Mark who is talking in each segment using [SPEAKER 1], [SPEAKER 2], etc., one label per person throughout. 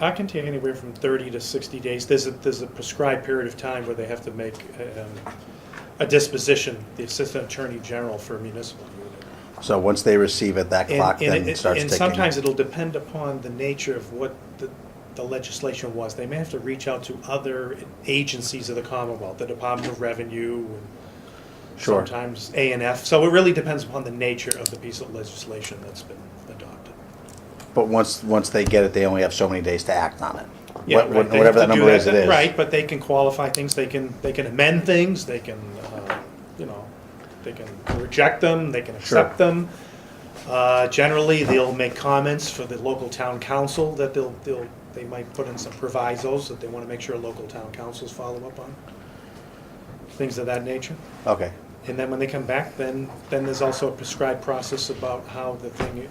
[SPEAKER 1] I can take anywhere from 30 to 60 days. There's a, there's a prescribed period of time where they have to make um, a disposition, the Assistant Attorney General for a municipal unit.
[SPEAKER 2] So once they receive it, that
[SPEAKER 1] And-
[SPEAKER 2] clock
[SPEAKER 1] and
[SPEAKER 2] then
[SPEAKER 1] it-
[SPEAKER 2] starts ticking.
[SPEAKER 1] And sometimes it'll depend upon the nature of what the, the legislation was. They may have to reach out to other agencies of the Commonwealth, the Department of Revenue, and
[SPEAKER 2] Sure.
[SPEAKER 1] sometimes A and F. So it really depends upon the nature of the piece of legislation that's been adopted.
[SPEAKER 2] But once, once they get it, they only have so many days to act on it.
[SPEAKER 1] Yeah,
[SPEAKER 2] What-
[SPEAKER 1] right. They
[SPEAKER 2] Whatever that
[SPEAKER 1] have to do
[SPEAKER 2] number is, it is.
[SPEAKER 1] Right, but they can qualify things, they can, they can amend things, they can, uh, you know, they can reject them, they can
[SPEAKER 2] Sure.
[SPEAKER 1] accept them. Uh, Generally, they'll make comments for the local town council that they'll, they'll, they might put in some provisos that they want to make sure local town councils follow up on. Things of that nature.
[SPEAKER 2] Okay,
[SPEAKER 1] And then when they come back, then, then there's also a prescribed process about how the thing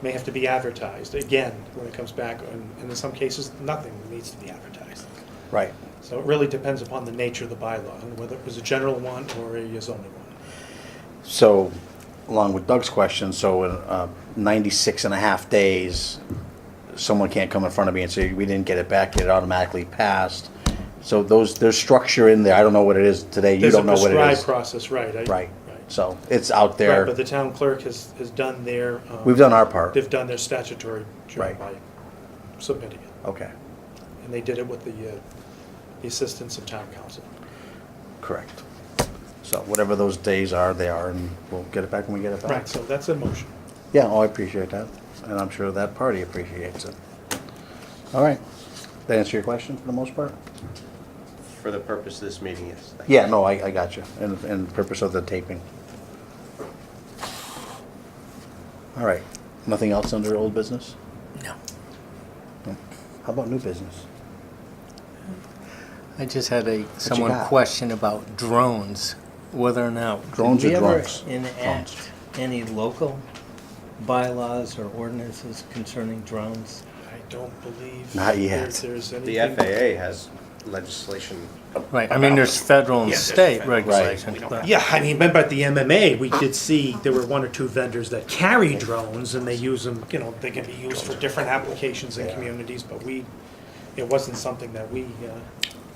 [SPEAKER 1] may have to be advertised, again, when it comes back, and and in some cases, nothing needs to be advertised.
[SPEAKER 2] right.
[SPEAKER 1] So it really depends upon the nature of the bylaw, and whether it was a general one or a zoning one.
[SPEAKER 2] So, along with Doug's question, so in uh, 96 and a half days, someone can't come in front of me and say, we didn't get it back, it automatically passed. So those, there's structure in there, I don't know what it is today, you don't know what
[SPEAKER 1] There's a
[SPEAKER 2] it
[SPEAKER 1] prescribed
[SPEAKER 2] is.
[SPEAKER 1] process, right. I-
[SPEAKER 2] Right,
[SPEAKER 1] Right,
[SPEAKER 2] so it's out
[SPEAKER 1] Right, but
[SPEAKER 2] there,
[SPEAKER 1] the town clerk has, has done their. um,
[SPEAKER 2] we've done our part,
[SPEAKER 1] They've done their statutory job
[SPEAKER 2] Right.
[SPEAKER 1] by submitting it,
[SPEAKER 2] okay,
[SPEAKER 1] and they did it with the, uh, the assistance of town council.
[SPEAKER 2] correct. So whatever those days are, they are, and we'll get it back when we get it back.
[SPEAKER 1] Right, so that's a motion.
[SPEAKER 2] Yeah, oh, I appreciate that, and I'm sure that party appreciates it. All right, that answer your question for the most part?
[SPEAKER 3] For the purpose of this meeting, yes. Thank you.
[SPEAKER 2] Yeah, no, I, I got you, and, and purpose of the taping. All right, nothing else under old business?
[SPEAKER 4] No.
[SPEAKER 2] No. How about new business?
[SPEAKER 4] I just had a, someone
[SPEAKER 2] got?
[SPEAKER 4] question about drones, whether or not.
[SPEAKER 2] Drones
[SPEAKER 4] did
[SPEAKER 2] or
[SPEAKER 4] we ever
[SPEAKER 2] drunks? Drunks.
[SPEAKER 4] Enact any local bylaws or ordinances concerning drones?
[SPEAKER 1] I don't believe.
[SPEAKER 2] Not
[SPEAKER 1] there-
[SPEAKER 2] yet.
[SPEAKER 1] There's
[SPEAKER 3] The
[SPEAKER 1] anything.
[SPEAKER 3] FAA has legislation.
[SPEAKER 4] Right, I mean, there's federal and
[SPEAKER 1] Yeah, there's
[SPEAKER 4] state
[SPEAKER 1] federal.
[SPEAKER 4] regulation.
[SPEAKER 3] We don't
[SPEAKER 4] but-
[SPEAKER 1] Yeah, I mean, remember at the MMA, we did see there were one or two vendors that carry drones and they use them, you know, they can be used for different applications in communities, but we, it wasn't something that we, uh,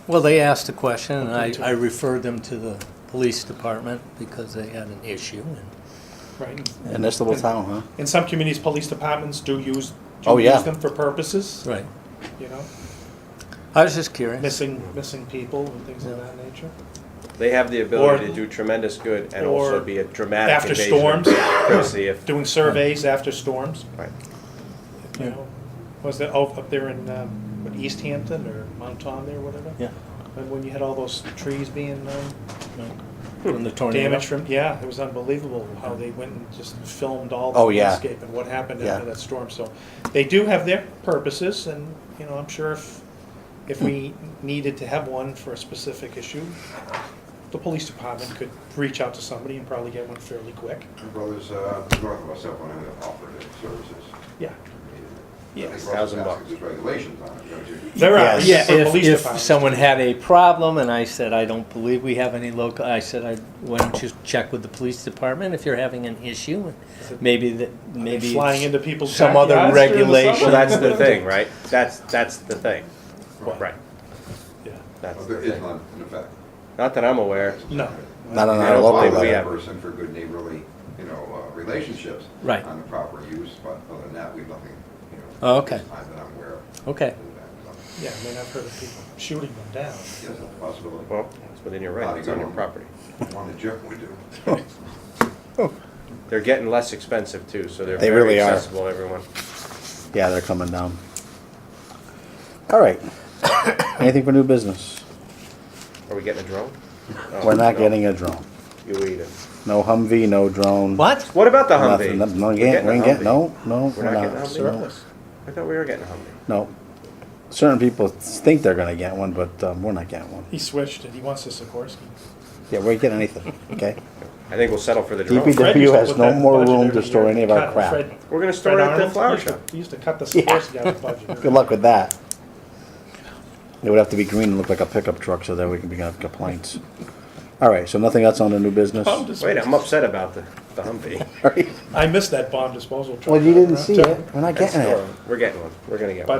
[SPEAKER 4] Well, they asked a question, and I,
[SPEAKER 1] Okay.
[SPEAKER 4] I referred them to the police department because they had an issue. and-
[SPEAKER 1] right?
[SPEAKER 2] In this little town, huh?
[SPEAKER 1] In some communities, police departments do use,
[SPEAKER 2] Oh,
[SPEAKER 1] do
[SPEAKER 2] yeah.
[SPEAKER 1] use them for purposes,
[SPEAKER 4] Right.
[SPEAKER 1] you know,
[SPEAKER 4] I was just curious.
[SPEAKER 1] missing, missing people and things of that nature.
[SPEAKER 3] They have the ability
[SPEAKER 1] Or-
[SPEAKER 3] to do tremendous good and
[SPEAKER 1] or
[SPEAKER 3] also be a dramatic
[SPEAKER 1] after
[SPEAKER 3] invasion
[SPEAKER 1] storms.
[SPEAKER 3] of privacy if,
[SPEAKER 1] Doing surveys after storms,
[SPEAKER 3] right.
[SPEAKER 1] you
[SPEAKER 4] Yeah.
[SPEAKER 1] know, was that, oh, up there in, um, what, East Hampton or Mount Tom there, whatever?
[SPEAKER 4] Yeah.
[SPEAKER 1] Remember when you had all those trees being, um,
[SPEAKER 4] From the tornado.
[SPEAKER 1] damage from, yeah, it was unbelievable how they went and just filmed all the
[SPEAKER 2] Oh, yeah.
[SPEAKER 1] landscape and what happened
[SPEAKER 2] Yeah.
[SPEAKER 1] after that storm. So they do have their purposes and, you know, I'm sure if, if we needed to have one for a specific issue, the police department could reach out to somebody and probably get one fairly quick.
[SPEAKER 5] My brother's uh, north of us up on him that offered it services.
[SPEAKER 1] Yeah. Yes.
[SPEAKER 3] Thousand bucks.
[SPEAKER 5] There's regulations on it, don't you?
[SPEAKER 1] There are,
[SPEAKER 2] Yes.
[SPEAKER 1] yeah, for
[SPEAKER 4] If,
[SPEAKER 1] police
[SPEAKER 4] if
[SPEAKER 1] departments.
[SPEAKER 4] someone had a problem and I said, I don't believe we have any local, I said, I, why don't you check with the police department if you're having an issue?
[SPEAKER 1] it-
[SPEAKER 4] Maybe that,
[SPEAKER 1] They're
[SPEAKER 4] maybe
[SPEAKER 1] Flying
[SPEAKER 4] it's-
[SPEAKER 1] into people's.
[SPEAKER 4] some other
[SPEAKER 1] backyards during the
[SPEAKER 4] regulation.
[SPEAKER 3] Well,
[SPEAKER 1] summer.
[SPEAKER 3] that's the thing, right? That's, that's the thing.
[SPEAKER 1] Right.
[SPEAKER 3] Right,
[SPEAKER 1] Yeah.
[SPEAKER 3] that's
[SPEAKER 5] But
[SPEAKER 3] the
[SPEAKER 5] There is
[SPEAKER 3] thing.
[SPEAKER 5] none in effect.
[SPEAKER 3] Not that I'm aware.
[SPEAKER 1] No.
[SPEAKER 2] Not on
[SPEAKER 3] I
[SPEAKER 2] our
[SPEAKER 3] don't
[SPEAKER 2] local
[SPEAKER 3] believe we
[SPEAKER 2] level.
[SPEAKER 3] have-
[SPEAKER 5] Person for good neighborly, you know, uh, relationships.
[SPEAKER 4] Right.
[SPEAKER 5] On the proper use, but other than that, we've nothing, you know.
[SPEAKER 4] Oh, okay.
[SPEAKER 5] this Time that I'm aware of.
[SPEAKER 4] Okay,
[SPEAKER 1] Yeah, I mean, I've heard of people shooting them down.
[SPEAKER 5] Yes, that's a possibility.
[SPEAKER 3] Well, it's within your right, it's on your property.
[SPEAKER 5] One that Jeff would do.
[SPEAKER 3] They're getting less expensive too, so they're
[SPEAKER 2] They
[SPEAKER 3] very
[SPEAKER 2] really are.
[SPEAKER 3] accessible, to everyone.
[SPEAKER 2] Yeah, they're coming down. All right, anything for new business?
[SPEAKER 3] Are we getting a drone? Oh,
[SPEAKER 2] We're not
[SPEAKER 3] no.
[SPEAKER 2] getting a drone.
[SPEAKER 3] You eat it.
[SPEAKER 2] No Humvee, no drone.
[SPEAKER 4] what?
[SPEAKER 3] What about the
[SPEAKER 2] Nothing,
[SPEAKER 3] Humvee?
[SPEAKER 2] nothing, no,
[SPEAKER 3] We're
[SPEAKER 2] we ain't
[SPEAKER 3] a
[SPEAKER 2] getting,
[SPEAKER 3] Humvee.
[SPEAKER 2] no, no,
[SPEAKER 3] We're not getting a
[SPEAKER 2] no.
[SPEAKER 3] Humvee? I thought we were getting a Humvee.
[SPEAKER 2] No, certain people think they're gonna get one, but, um, we're not getting one.
[SPEAKER 1] He switched it. He wants a Sikorsky.
[SPEAKER 2] Yeah, we're getting anything, okay?
[SPEAKER 3] I think we'll settle for the drone.
[SPEAKER 2] DPW
[SPEAKER 1] Fred used to
[SPEAKER 2] has
[SPEAKER 1] put
[SPEAKER 2] no
[SPEAKER 1] that
[SPEAKER 2] more
[SPEAKER 1] budget
[SPEAKER 2] room
[SPEAKER 1] every
[SPEAKER 2] to store
[SPEAKER 1] year.
[SPEAKER 2] any of our
[SPEAKER 1] Cut-
[SPEAKER 2] crap.
[SPEAKER 1] Fred-
[SPEAKER 3] We're gonna
[SPEAKER 1] Fred
[SPEAKER 3] store it at the
[SPEAKER 1] Arnold
[SPEAKER 3] flower
[SPEAKER 1] used to-
[SPEAKER 3] shop.
[SPEAKER 1] He used to cut the
[SPEAKER 2] Yeah.
[SPEAKER 1] Sikorsky out of the budget.
[SPEAKER 2] Good luck with that. It would have to be green and look like a pickup truck so that we can begin complaints. All right, so nothing else on the new business?
[SPEAKER 1] Bomb
[SPEAKER 2] All
[SPEAKER 3] Wait, I'm
[SPEAKER 1] disposal.
[SPEAKER 3] upset about the, the Humvee.
[SPEAKER 2] right.
[SPEAKER 1] I missed that bomb disposal truck.
[SPEAKER 2] Well, you didn't
[SPEAKER 1] Uh,
[SPEAKER 2] see it. We're not getting it.
[SPEAKER 3] We're getting one. We're gonna get one.